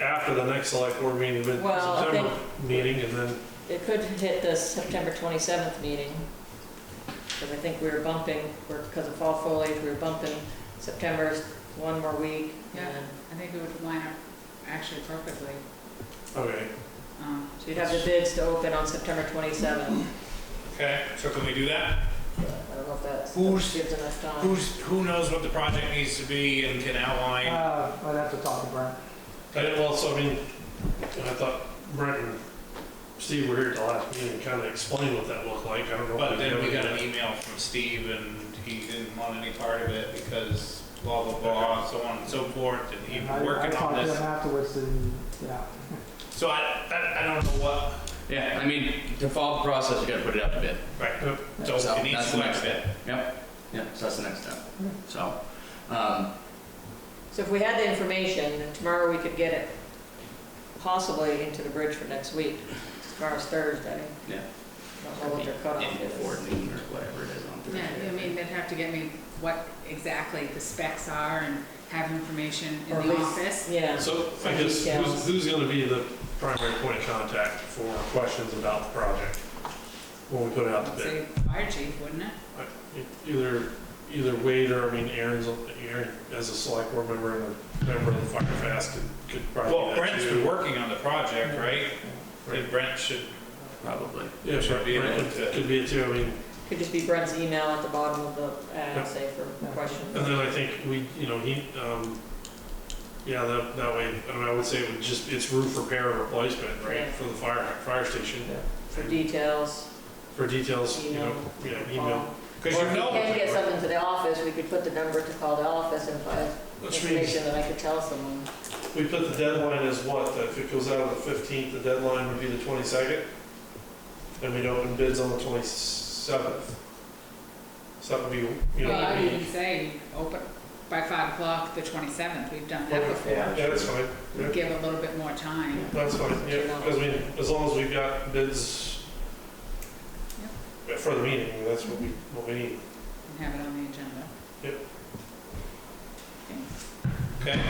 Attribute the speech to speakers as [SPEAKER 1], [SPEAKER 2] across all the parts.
[SPEAKER 1] after the next select board meeting, but
[SPEAKER 2] Well, I
[SPEAKER 1] September meeting, and then,
[SPEAKER 2] It could hit the September 27th meeting, because I think we were bumping, because of fall foliage, we were bumping September's one more week.
[SPEAKER 3] Yeah.
[SPEAKER 2] and-
[SPEAKER 3] I think it would line up actually perfectly.
[SPEAKER 1] okay.
[SPEAKER 3] Um,
[SPEAKER 2] So you'd have the bids to open on September 27th.
[SPEAKER 4] Okay, so can we do that?
[SPEAKER 2] I don't know if that's- that
[SPEAKER 5] Who's-
[SPEAKER 2] gives enough time.
[SPEAKER 4] Who's, who knows what the project needs to be and can outline?
[SPEAKER 5] Uh, I'd have to talk to Brent.
[SPEAKER 1] I didn't, well, so I mean, I thought Brent and Steve were here at the last meeting, and kind of explained what that looked like, I don't know. if
[SPEAKER 4] But then we
[SPEAKER 1] ever
[SPEAKER 4] got
[SPEAKER 1] did.
[SPEAKER 4] an email from Steve and he didn't want any part of it because blah, blah, blah, so on and so forth, and he
[SPEAKER 5] I-
[SPEAKER 4] was working on
[SPEAKER 5] I talked to
[SPEAKER 4] this.
[SPEAKER 5] him afterwards and, yeah.
[SPEAKER 4] So I, I, I don't know what,
[SPEAKER 6] Yeah, I mean, to follow the process, you gotta put it out to bid.
[SPEAKER 4] right, so
[SPEAKER 6] So
[SPEAKER 4] it needs
[SPEAKER 6] that's
[SPEAKER 4] to
[SPEAKER 6] the
[SPEAKER 4] next
[SPEAKER 6] next
[SPEAKER 4] bit.
[SPEAKER 6] step. Yep, yep, so that's the next step. So, um,
[SPEAKER 2] So if we had the information, then tomorrow we could get it possibly into the bridge for next week. Tomorrow's Thursday.
[SPEAKER 6] Yeah.
[SPEAKER 2] Don't know what their
[SPEAKER 6] in
[SPEAKER 2] cutoff
[SPEAKER 6] before
[SPEAKER 2] is.
[SPEAKER 6] noon or whatever it is on
[SPEAKER 3] Yeah,
[SPEAKER 6] Thursday.
[SPEAKER 3] I mean, they'd have to get me what exactly the specs are and have information in
[SPEAKER 2] Or
[SPEAKER 3] the
[SPEAKER 2] at least-
[SPEAKER 3] office.
[SPEAKER 2] Yeah,
[SPEAKER 1] So I guess, who's, who's gonna be the primary point of contact for questions about the project when we put it out to
[SPEAKER 3] I'd
[SPEAKER 1] bid? E-,
[SPEAKER 3] say fire chief, wouldn't it?
[SPEAKER 1] Either, either Wade or, I mean, Aaron's, Aaron, as a select board member and a member of the Fire Fast could, could probably.
[SPEAKER 4] Well,
[SPEAKER 1] do that
[SPEAKER 4] Brent's
[SPEAKER 1] too.
[SPEAKER 4] been working on the project, right?
[SPEAKER 1] Right.
[SPEAKER 4] And Brent should,
[SPEAKER 6] Probably.
[SPEAKER 1] Yeah, sure,
[SPEAKER 4] be able
[SPEAKER 1] Brent
[SPEAKER 4] to-
[SPEAKER 1] could- could be it too, I mean,
[SPEAKER 2] could just be Brent's email at the bottom of the ad,
[SPEAKER 1] Yep.
[SPEAKER 2] say for questions.
[SPEAKER 1] and then I think we, you know, he, um, yeah, that, that way, I mean, I would say it would just, it's roof repair and replacement, right,
[SPEAKER 2] Yeah.
[SPEAKER 1] for the fire, fire station,
[SPEAKER 2] for details,
[SPEAKER 1] for details, you know,
[SPEAKER 2] email.
[SPEAKER 1] yeah, email.
[SPEAKER 4] because
[SPEAKER 2] Um, Or
[SPEAKER 4] you
[SPEAKER 2] if we
[SPEAKER 4] know.
[SPEAKER 2] can get something to the office, we could put the number to call the office and find
[SPEAKER 1] Which means
[SPEAKER 2] information that I could tell someone.
[SPEAKER 1] we put the deadline as what, that if it goes out on the fifteenth, the deadline would be the twenty-second? And we'd open bids on the twenty-seventh. So that would be, you know,
[SPEAKER 3] Well, I
[SPEAKER 1] that'd
[SPEAKER 3] would
[SPEAKER 1] be-
[SPEAKER 3] even say, open by five o'clock, the twenty-seventh, we've done that
[SPEAKER 1] Okay.
[SPEAKER 3] before.
[SPEAKER 1] yeah, that's fine, yeah.
[SPEAKER 3] Give a little bit more time.
[SPEAKER 1] That's fine, yeah, 'cause I mean, as long as we've got bids for the meeting, that's what we, what we need.
[SPEAKER 3] and have it on the agenda.
[SPEAKER 4] Okay,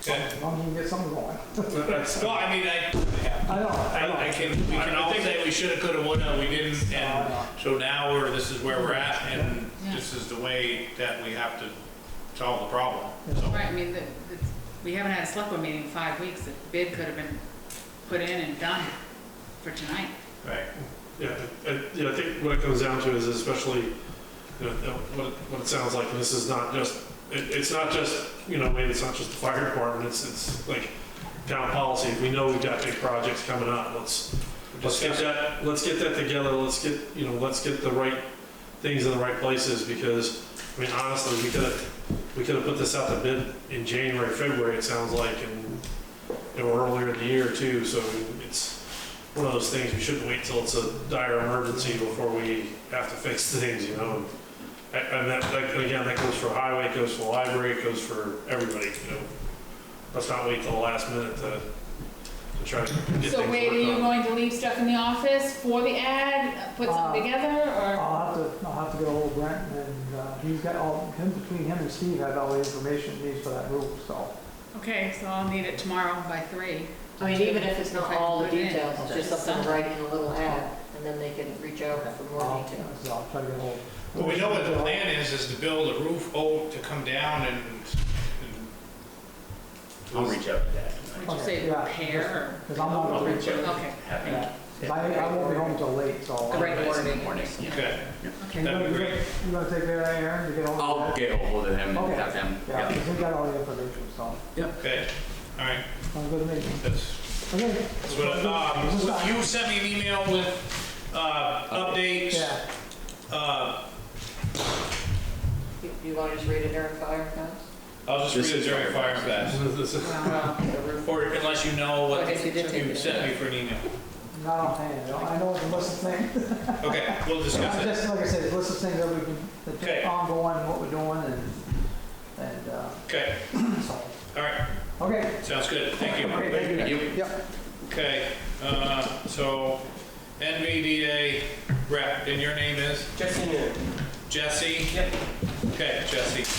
[SPEAKER 4] okay.
[SPEAKER 5] As long as we can get something going.
[SPEAKER 1] That's-
[SPEAKER 4] Well, I mean, I,
[SPEAKER 5] I know, I know.
[SPEAKER 4] I I can, we can all say we should've, could've, would've, we didn't,
[SPEAKER 5] I
[SPEAKER 4] and
[SPEAKER 5] know.
[SPEAKER 4] so now we're, this is where we're at, and
[SPEAKER 3] Yeah.
[SPEAKER 4] this is the way that we have to solve the problem, so.
[SPEAKER 3] Right, I mean, the, the- we haven't had a select board meeting in five weeks, the bid could have been put in and done for tonight.
[SPEAKER 4] Right,
[SPEAKER 1] Yeah, I, I- yeah, I think what it comes down to is especially, you know, what, it- what it sounds like, and this is not just, it, it's not just, you know, maybe it's not just the fire department, it's, it's like town policy, we know we've got big projects coming up, let's, let's get that, let's get that together, let's get, you know, let's get the right things in the right places, because, I mean, honestly, we could have, we could have put this out to bid in January, February, it sounds like, and, you know, earlier in the year too, so it's, one of those things, we shouldn't wait till it's a dire emergency before we have to fix things, you know? And- And that, that- and again, that goes for highway, it goes for library, it goes for everybody, you know? Let's not wait till the last minute to, to try to get things
[SPEAKER 3] So wait, are you
[SPEAKER 1] worked on.
[SPEAKER 3] going to leave stuff in the office for the ad, put something
[SPEAKER 5] Uh,
[SPEAKER 3] together, or?
[SPEAKER 5] I'll have to, I'll have to get ahold of Brent and, uh, he's got all, him, between him and Steve have all the information he needs for that roof, so.
[SPEAKER 3] Okay, so I'll need it tomorrow by three.
[SPEAKER 2] I mean, even if it's not all the
[SPEAKER 3] Okay.
[SPEAKER 2] details, it's just something Oh. to write in a little ad, and then they can reach out for more
[SPEAKER 5] I'll-
[SPEAKER 2] details.
[SPEAKER 5] So I'll try to get ahold.
[SPEAKER 4] well, we know what the plan is, is to build a roof, oh, to come down and. and-
[SPEAKER 6] I'll reach out to that
[SPEAKER 3] Would
[SPEAKER 6] tonight.
[SPEAKER 3] you say
[SPEAKER 5] Okay, yeah.
[SPEAKER 3] repair
[SPEAKER 5] Because I'm not
[SPEAKER 6] I'll
[SPEAKER 5] gonna
[SPEAKER 6] reach
[SPEAKER 5] reach
[SPEAKER 6] out.
[SPEAKER 3] Okay,
[SPEAKER 6] Having.
[SPEAKER 5] Yeah. I, I won't be home till late, so. uh,
[SPEAKER 2] The right
[SPEAKER 6] Guys in the
[SPEAKER 2] wording.
[SPEAKER 6] morning, yeah.
[SPEAKER 4] Okay,
[SPEAKER 3] okay.
[SPEAKER 4] That'd be great.
[SPEAKER 5] You gonna take care of that, Aaron, to get ahold of
[SPEAKER 6] I'll
[SPEAKER 5] Brent?
[SPEAKER 6] get ahold of him and
[SPEAKER 5] Okay.
[SPEAKER 6] have him,
[SPEAKER 5] Yeah,
[SPEAKER 6] Oh, yeah.
[SPEAKER 5] because he got all the information, so.
[SPEAKER 4] okay, all right,
[SPEAKER 5] Sounds good to me.
[SPEAKER 4] that's.
[SPEAKER 5] Okay.
[SPEAKER 4] So, um, You sent me an email with uh, updates,
[SPEAKER 5] Yeah,
[SPEAKER 4] Uh,
[SPEAKER 2] You- You want to just read it during fire codes?
[SPEAKER 4] I'll just
[SPEAKER 6] This
[SPEAKER 4] read it
[SPEAKER 6] is
[SPEAKER 4] during fire and fast.
[SPEAKER 1] This is-
[SPEAKER 3] Wow.
[SPEAKER 4] Or unless you know
[SPEAKER 2] Oh,
[SPEAKER 4] what
[SPEAKER 2] I guess you did take
[SPEAKER 4] you
[SPEAKER 2] it.
[SPEAKER 4] sent me for an email.
[SPEAKER 5] not on hand, though. I know it's a list of things.
[SPEAKER 4] Okay, we'll discuss it.
[SPEAKER 5] Just like I said, it's a list of things that we've been, that's
[SPEAKER 4] Okay.
[SPEAKER 5] ongoing, what we're doing and, and, uh,
[SPEAKER 4] Okay,
[SPEAKER 5] so.
[SPEAKER 4] all right,
[SPEAKER 5] Okay.
[SPEAKER 4] sounds good, thank
[SPEAKER 5] Okay,
[SPEAKER 4] you.
[SPEAKER 5] thank
[SPEAKER 6] You-
[SPEAKER 5] Yep.
[SPEAKER 4] Okay, uh, so NVDA rep, and your name is? Jesse Jesse? Yep. Okay, Jesse.